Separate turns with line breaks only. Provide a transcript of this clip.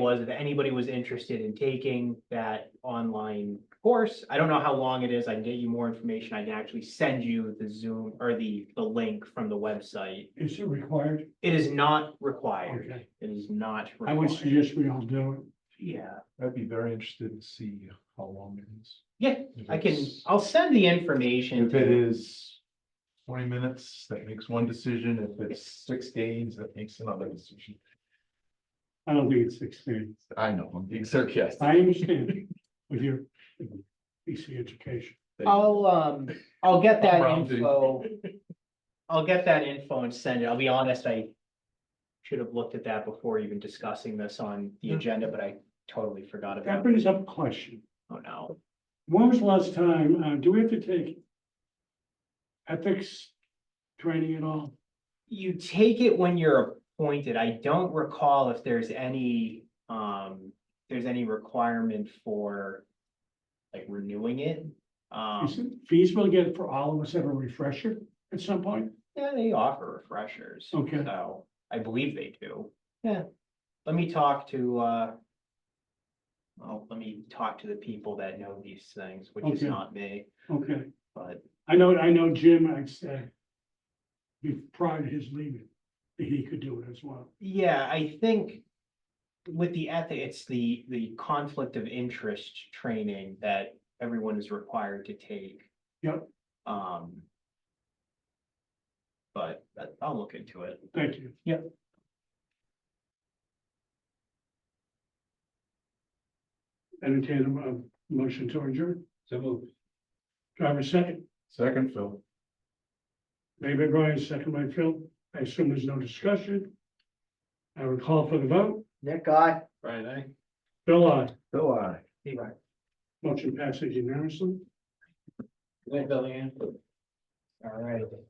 was if anybody was interested in taking that online course. I don't know how long it is. I can get you more information. I can actually send you the Zoom or the, the link from the website.
Is it required?
It is not required.
Okay.
It is not
I would
required.
suggest we all do it.
Yeah,
I'd be very interested to see how long it is.
yeah,
If
I can,
it's-
I'll send the information.
If it
to-
is twenty minutes, that makes one decision. If it's six days, that makes another decision.
I don't think it's six thirty.
I know, I'm being sarcastic.
I understand with your PC education.
I'll, um, I'll get that
Rounding.
info. I'll get that info and send it. I'll be honest, I should have looked at that before even discussing this on the
Yeah.
agenda, but I totally forgot
That
about it.
brings up a question.
Oh, no.
When was the last time, uh, do we have to take ethics training at all?
You take it when you're appointed. I don't recall if there's any, um, there's any requirement for like renewing it.
Is it
Um,
feasible to get for all of us have a refresher at some point?
yeah, they offer refreshers.
Okay.
So I believe they do. Yeah. Let me talk to, uh, well, let me talk to the people that know these things, which is
Okay.
not me,
Okay,
but
I know, I know Jim, I'd say. Be prior to his leaving, that he could do it as well.
yeah, I think with the ethic, it's the, the conflict of interest training that everyone is required to take.
Yep.
Um, but but I'll look into it.
Thank you. Entertain a mo- motion to adjourn.
So moved.
Driver second,
Second, Phil.
made by Brian, second by Phil. I assume there's no discussion. I would call for the vote.
Nick, I.
Right, I.
Bill, aye.
Phil, I.
Motion passes unanimously.
All right.